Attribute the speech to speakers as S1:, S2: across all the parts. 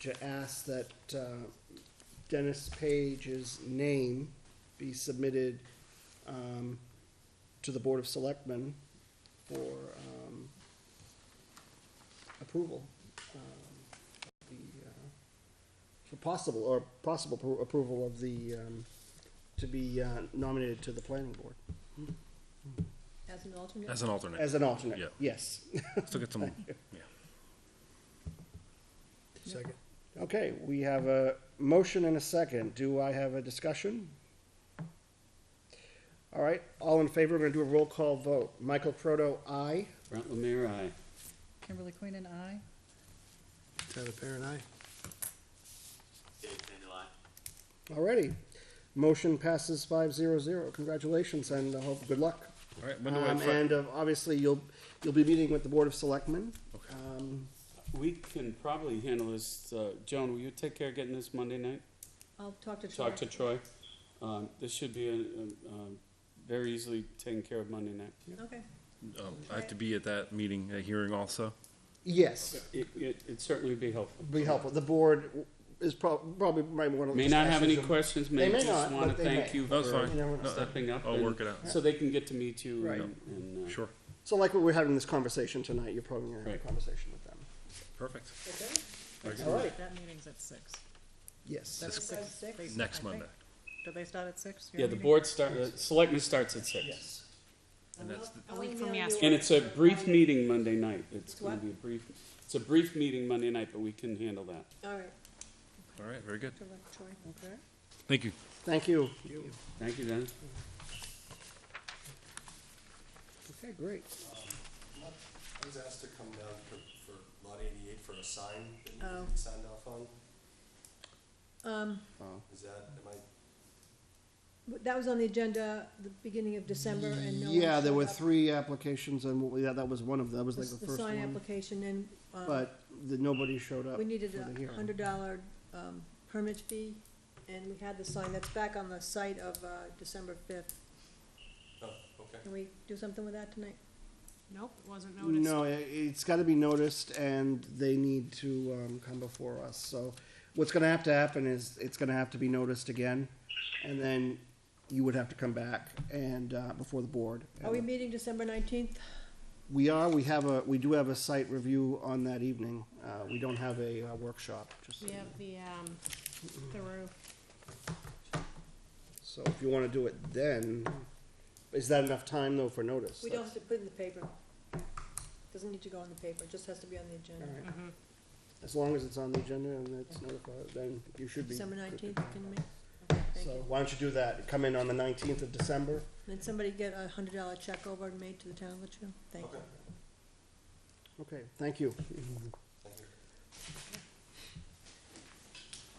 S1: to ask that uh, Dennis Page's name be submitted um, to the Board of Selectmen for um, approval. um, of the, uh, For possible, or possible appro- approval of the, um, to be uh, nominated to the planning board
S2: As an alternate?
S3: As an alternate,
S1: as an alternate,
S3: Yeah.
S1: yes.
S3: still get some, yeah.
S4: Second.
S1: Okay, we have a motion and a second. Do I have a discussion? All right, all in favor, we're gonna do a roll call vote. Michael Proto, aye.
S5: Brent Lemire, aye.
S6: Kimberly Queen and I.
S4: Tyler Perrin, aye.
S1: Alrighty, motion passes five zero zero. Congratulations and I hope, good luck.
S3: All right, when do I,
S1: Um,
S3: fi-
S1: and uh, obviously, you'll, you'll be meeting with the Board of Selectmen.
S3: Okay.
S1: Um,
S5: We can probably handle this, uh, Joan, will you take care of getting this Monday night?
S2: I'll talk to Troy.
S5: Talk to Troy. Um, this should be, um, um, very easily taken care of Monday night.
S2: Okay,
S3: um, I have to be at that meeting, that hearing also?
S1: yes,
S5: It, it, it'd certainly be helpful.
S1: be helpful. The board is prob- probably might wanna.
S5: May
S1: just
S5: not
S1: ask
S5: have
S1: you
S5: any
S1: some-
S5: questions,
S1: They
S5: may
S1: may
S5: just
S1: not,
S5: wanna
S1: but they
S5: thank
S1: may.
S5: you
S3: That's
S5: for
S3: fine.
S1: You never know.
S5: stepping up.
S3: I'll
S5: and-
S3: work it out.
S5: So they can get to meet you
S1: Right.
S5: and, and, uh,
S3: Sure,
S1: So like we're having this conversation tonight, you're probably gonna have a
S5: Right.
S1: conversation with them.
S3: perfect.
S1: All right,
S6: That meeting's at six.
S1: yes.
S6: That's
S2: Six.
S6: six.
S2: Six.
S6: They- I
S3: Next
S6: think.
S3: Monday,
S6: Do they start at six? your
S5: yeah, the
S6: meeting?
S5: board start, uh, selectmen starts at six.
S1: Yes.
S3: and that's, the-
S2: I'll email you
S5: And it's a brief meeting Monday night. It's
S2: It's
S5: gonna
S2: what?
S5: be a brief, it's a brief meeting Monday night, but we can handle that.
S2: All right,
S3: all right, very good.
S2: to let Troy. Okay.
S3: Thank you.
S1: Thank you.
S5: Thank you, Dennis.
S1: Okay, great.
S7: I was asked to come down for, for lot eighty-eight for a sign that needed
S2: Oh.
S7: to be signed off on.
S2: Um,
S7: Is that, am I,
S2: but that was on the agenda the beginning of December and no one
S1: Yeah, there
S2: showed
S1: were
S2: up.
S1: three applications and, yeah, that was one of them, that was like the
S2: The
S1: first
S2: sign
S1: one.
S2: application and, um,
S1: But the, nobody showed up.
S2: we needed
S1: for the
S2: a
S1: hearing.
S2: hundred dollar, um, permit fee and we had the sign that's back on the site of, uh, December fifth.
S7: oh, okay.
S2: Can we do something with that tonight?
S6: Nope, wasn't noticed.
S1: No, i- it's gotta be noticed and they need to, um, come before us, so. What's gonna have to happen is, it's gonna have to be noticed again, and then you would have to come back and, uh, before the board.
S2: Are we meeting December nineteenth?
S1: We are, we have a, we do have a site review on that evening, uh, we don't have a uh, workshop, just so you
S8: We
S1: know.
S8: have the, um, the roof.
S1: So if you wanna do it then, is that enough time though for notice?
S2: We don't have to put it in the paper. Doesn't need to go in the paper, it just has to be on the agenda.
S1: Alright. As long as it's on the agenda and it's notified, then you should be.
S2: December
S1: good to
S2: nineteenth,
S1: go.
S2: can you make? Okay, thank
S1: So
S2: you.
S1: why don't you do that, come in on the nineteenth of December,
S2: Did somebody get a hundred dollar check over and made to the town of Litchfield? Thank you.
S1: okay, thank you.
S7: Thank you.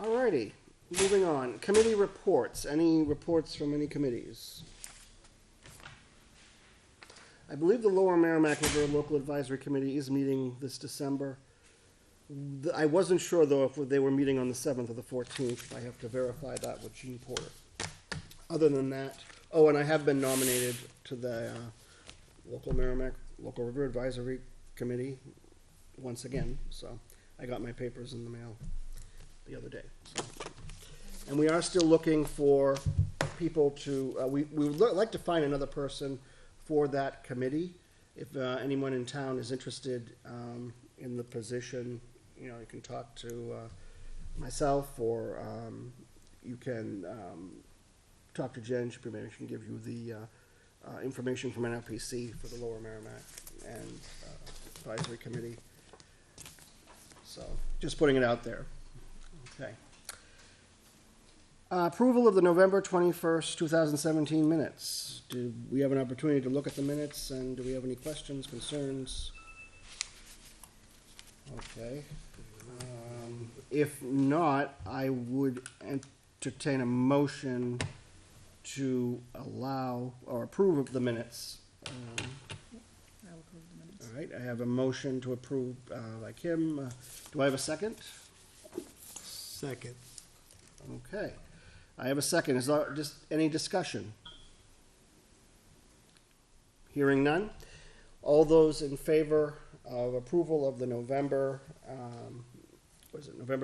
S1: Alrighty, moving on, committee reports, any reports from any committees? I believe the Lower Merrimack River Local Advisory Committee is meeting this December. The- I wasn't sure though if they were meeting on the seventh or the fourteenth, I have to verify that with Gene Porter. Other than that, oh, and I have been nominated to the, uh, Local Merrimack, Local River Advisory Committee once again, so I got my papers in the mail the other day. so. And we are still looking for people to, uh, we, we would li- like to find another person for that committee. If, uh, anyone in town is interested, um, in the position, you know, you can talk to, uh, myself or, um, you can, um, talk to Jen, she maybe she can give you the, uh, uh, information from NRPC for the Lower Merrimack and uh, Advisory Committee. So, just putting it out there. Okay. Uh, Approval of the November twenty-first, two thousand seventeen minutes. Do we have an opportunity to look at the minutes, and do we have any questions, concerns? Okay. Um, If not, I would entertain a motion to allow or approve of the minutes. Um,
S6: I will approve the minutes.
S1: All right, I have a motion to approve uh, by Kim. Uh, Do I have a second?
S4: Second.
S1: Okay. I have a second. Is there just any discussion? Hearing none. All those in favor of approval of the November, um, was it November